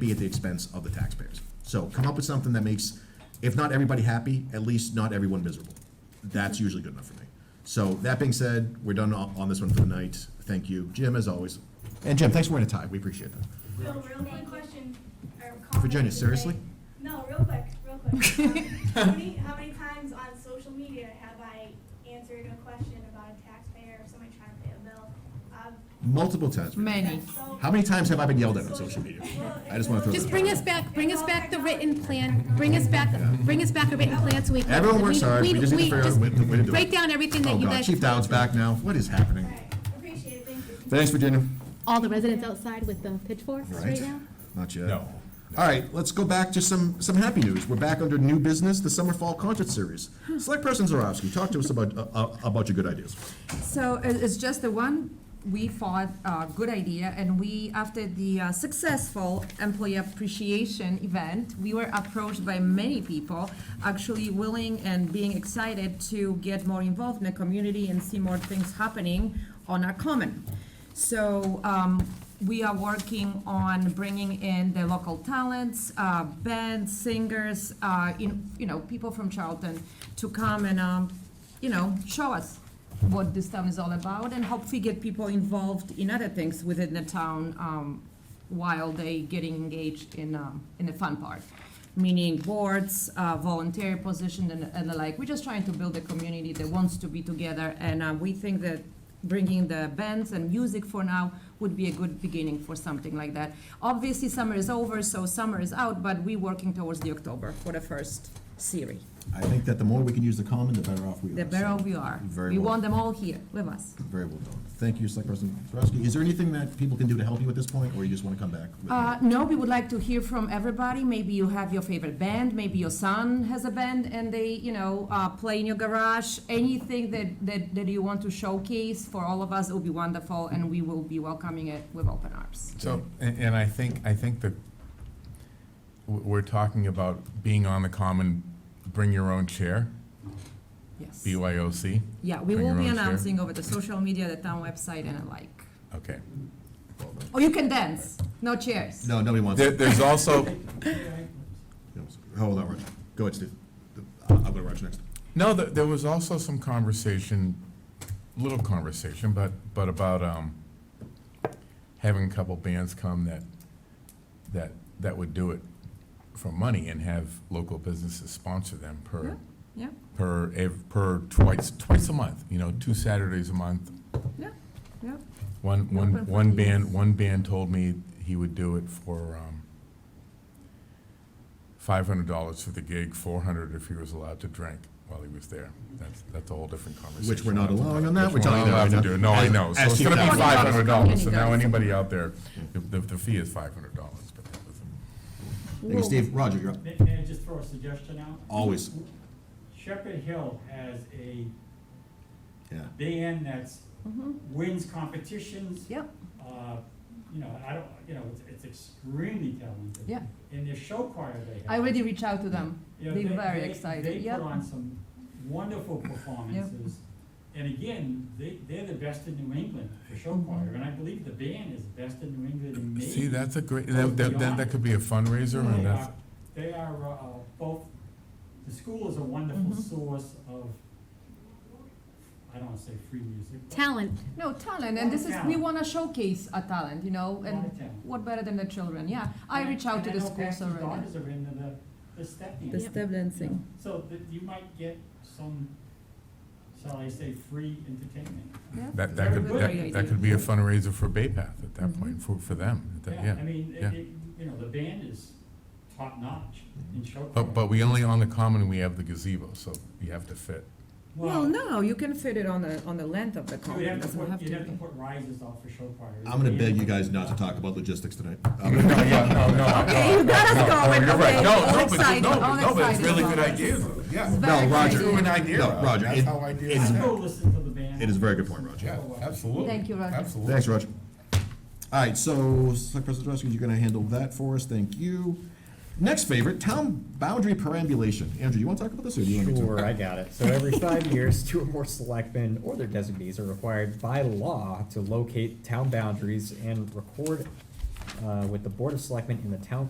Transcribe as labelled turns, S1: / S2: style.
S1: be at the expense of the taxpayers. So come up with something that makes, if not everybody happy, at least not everyone miserable. That's usually good enough for me. So that being said, we're done on on this one for the night. Thank you, Jim, as always. And Jim, thanks for wearing a tie. We appreciate that.
S2: Bill, real quick question, or comment
S1: Virginia,
S2: to
S1: seriously?
S2: make. No, real quick, real quick. Um, How many, how many times on social media have I answered a question about a taxpayer or somebody trying to pay a bill? Um,
S1: Multiple times.
S3: Many.
S2: that's so-
S1: How many times have I been yelled at on social media? I just want to throw
S4: Just
S1: that
S4: bring
S1: out.
S4: us back, bring us back the written plan, bring us back, bring us back a written plan so we can.
S1: Everyone works hard. We just need to figure out
S4: just
S1: a way to- way to do it.
S4: Break down everything
S1: Oh,
S4: that you
S1: God,
S4: guys,
S1: Chief Dowd's back now. What is happening?
S2: All right, appreciate it, thank you.
S1: Thanks, Virginia.
S4: all the residents outside with the pitchforks right now.
S1: Not yet.
S5: No.
S1: All right, let's go back to some, some happy news. We're back under new business, the summer fall concert series. Select Person Zarowski, talk to us about, uh, uh, about your good ideas.
S3: So it- it's just the one we thought uh, good idea, and we after the uh, successful employee appreciation event, we were approached by many people actually willing and being excited to get more involved in the community and see more things happening on our common. So um, we are working on bringing in the local talents, uh, bands, singers, uh, in, you know, people from Charlton to come and um, you know show us what this town is all about and hopefully get people involved in other things within the town um, while they getting engaged in, um, in the fun part. Meaning boards, uh, volunteer position and, and the like. We're just trying to build a community that wants to be together and uh, we think that bringing the bands and music for now would be a good beginning for something like that. Obviously, summer is over, so summer is out, but we're working towards the October for the first series.
S1: I think that the more we can use the common, the better off we are.
S3: The better we are.
S1: Very
S3: We
S1: well.
S3: want them all here with us.
S1: Very well done. Thank you, Select Person Zarowski. Is there anything that people can do to help you at this point, or you just want to come back? with-
S3: Uh, no, we would like to hear from everybody. Maybe you have your favorite band. Maybe your son has a band and they, you know, uh, play in your garage. Anything that, that, that you want to showcase for all of us would be wonderful, and we will be welcoming it with open arms.
S5: So, and, and I think, I think that w- we're talking about being on the common, bring your own chair,
S3: Yes.
S5: BYOC.
S3: Yeah, we
S5: Bring
S3: will
S5: your
S3: be
S5: own chair.
S3: announcing over the social media, the town website, and the like.
S5: Okay.
S3: Oh, you can dance. No chairs.
S1: No, nobody wants.
S5: There, there's also,
S1: Hold on, Roger. Go ahead, Steve. I'll go to Roger next.
S5: no, there, there was also some conversation, little conversation, but, but about, um, having a couple bands come that, that, that would do it for money and have local businesses sponsor them per,
S3: Yeah,
S5: per, ev- per twice, twice a month, you know, two Saturdays a month,
S3: yeah, yeah.
S5: One,
S3: Open
S5: one,
S3: for
S5: one band,
S3: years.
S5: one band told me he would do it for, um, five hundred dollars for the gig, four hundred if he was allowed to drink while he was there. That's, that's a whole different conversation.
S1: Which we're not allowing on that, we're
S5: Which
S1: telling you that
S5: allowed
S1: right
S5: to
S1: now.
S5: do. No, I
S1: As-
S5: know, so
S1: as
S5: it's
S1: you
S5: gonna be
S1: know.
S5: five hundred dollars, so now
S3: $20.
S5: anybody out there, the, the, the fee is five hundred dollars, but that was,
S1: Thank you, Steve. Roger, you're up.
S6: May may I just throw a suggestion out?
S1: Always.
S6: Shepherd Hill has a
S1: Yeah.
S6: band that's,
S3: Mm-hmm.
S6: wins competitions.
S3: Yep.
S6: Uh, You know, I don't, you know, it's- it's extremely talented.
S3: Yeah.
S6: And their show choir they have.
S3: I already reached out to them.
S6: you know,
S3: They're
S6: they-
S3: very
S6: they-
S3: excited,
S6: They
S3: yeah.
S6: put on some wonderful performances. And again, they, they're the best in New England for show
S3: Mm-hmm.
S6: choir, and I believe the band is best in New England and maybe.
S5: see, that's a great, that, that, that- that could be a fundraiser and
S6: They
S5: that's,
S6: are, they are, uh, both, the school is a wonderful
S3: Mm-hmm.
S6: source of, I don't wanna say free music. but-
S4: Talent,
S3: No, talent, and this is, we want to showcase a talent, you know, and
S6: Lot of talent.
S3: what better than the children, yeah. I reach out to the schools
S6: And I know
S3: already.
S6: Patsy's daughters are into the, the step
S3: The
S6: dance.
S3: step dancing.
S6: So that you might get some, shall I say, free entertainment.
S3: Yeah.
S5: that, that could,
S3: Very good
S5: that,
S3: idea.
S5: that could be a fundraiser for Bay Path at that
S3: Mhm.
S5: point, for, for them, that- yeah.
S6: I mean, it,
S5: yeah.
S6: it, you know, the band is top notch in show.
S5: But, but we only on the common, we have the gazebo, so you have to fit.
S3: Well,
S6: Well,
S3: no, you can fit it on the, on the length of the
S6: you would
S3: column,
S6: have to
S3: doesn't have
S6: put,
S3: to
S6: you'd have to
S3: be.
S6: put risers off for show choir.
S1: I'm gonna beg you guys not to talk about logistics tonight. I'm
S5: No,
S1: gonna-
S5: yeah, no, no.
S3: Okay, you got us
S5: no, no,
S3: going,
S5: you're right.
S3: okay.
S5: No,
S3: All
S5: no, but-
S3: excited,
S5: no,
S3: all
S5: No, but it's
S3: excited
S5: really
S3: about
S5: good
S3: it.
S5: ideas, though, yeah.
S1: No,
S3: Very
S1: Roger.
S5: Drew
S3: excited.
S5: an idea.
S1: No,
S5: out.
S1: Roger,
S5: That's
S1: it-
S5: how ideas
S1: it's-
S6: I'd
S5: happen.
S6: go listen to the band.
S1: It is a very good point, Roger.
S5: Yeah, absolutely.
S3: Thank you, Roger.
S5: Absolutely.
S1: Thanks, Roger. All right, so Select Person Zarowski, you're gonna handle that for us. Thank you. Next favorite, town boundary perambulation. Andrew, you wanna talk about this or do you want me to?
S7: Sure, I got it. So every five years, two or more selectmen or their designees are required by law to locate town boundaries and record uh, with the Board of Selectmen in the town